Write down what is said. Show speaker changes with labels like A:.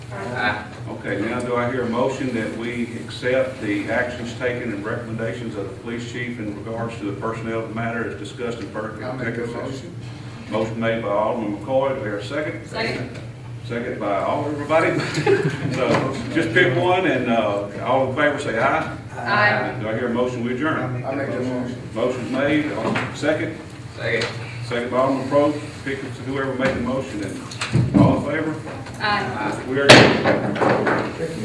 A: now do I hear a motion that we accept the actions taken and recommendations of the police chief in regards to the personnel matter as discussed in per-
B: I'll make a
A: executive session?
B: motion.
A: Motion made by Alderman McCoy, do I hear a second?
C: Second.
A: Second by all, everybody. So just pick one and, uh, all in favor say aye.
C: Aye.
A: Do I hear a motion we adjourn?
B: I make a motion.
A: Motion made, all- second,
D: Second.
A: second by Alderman Probst, pick whoever made the motion and all in favor?
C: Aye.
A: We are adjourned.